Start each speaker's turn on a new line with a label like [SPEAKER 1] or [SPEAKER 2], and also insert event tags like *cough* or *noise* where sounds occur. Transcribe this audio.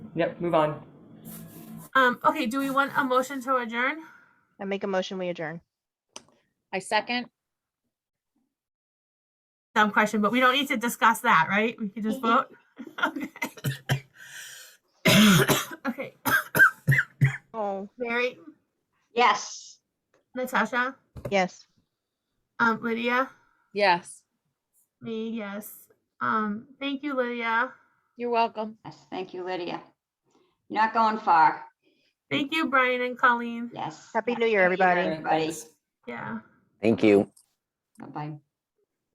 [SPEAKER 1] Yep, move on.
[SPEAKER 2] Um, okay, do we want a motion to adjourn?
[SPEAKER 3] I make a motion, we adjourn.
[SPEAKER 4] I second.
[SPEAKER 2] Dumb question, but we don't need to discuss that, right? We can just vote? *laughs* Okay. Okay,
[SPEAKER 3] Oh,
[SPEAKER 2] Mary,
[SPEAKER 5] Yes.
[SPEAKER 2] Natasha,
[SPEAKER 3] yes.
[SPEAKER 2] um, Lydia,
[SPEAKER 4] Yes,
[SPEAKER 2] me, yes. Um, thank you, Lydia.
[SPEAKER 4] you're welcome.
[SPEAKER 5] Yes, thank you, Lydia. You're Not going far.
[SPEAKER 2] Thank you, Brian and Colleen.
[SPEAKER 5] Yes.
[SPEAKER 3] Happy New Year, everybody.
[SPEAKER 5] Everybody.
[SPEAKER 2] Yeah.
[SPEAKER 6] Thank you.
[SPEAKER 5] Bye-bye.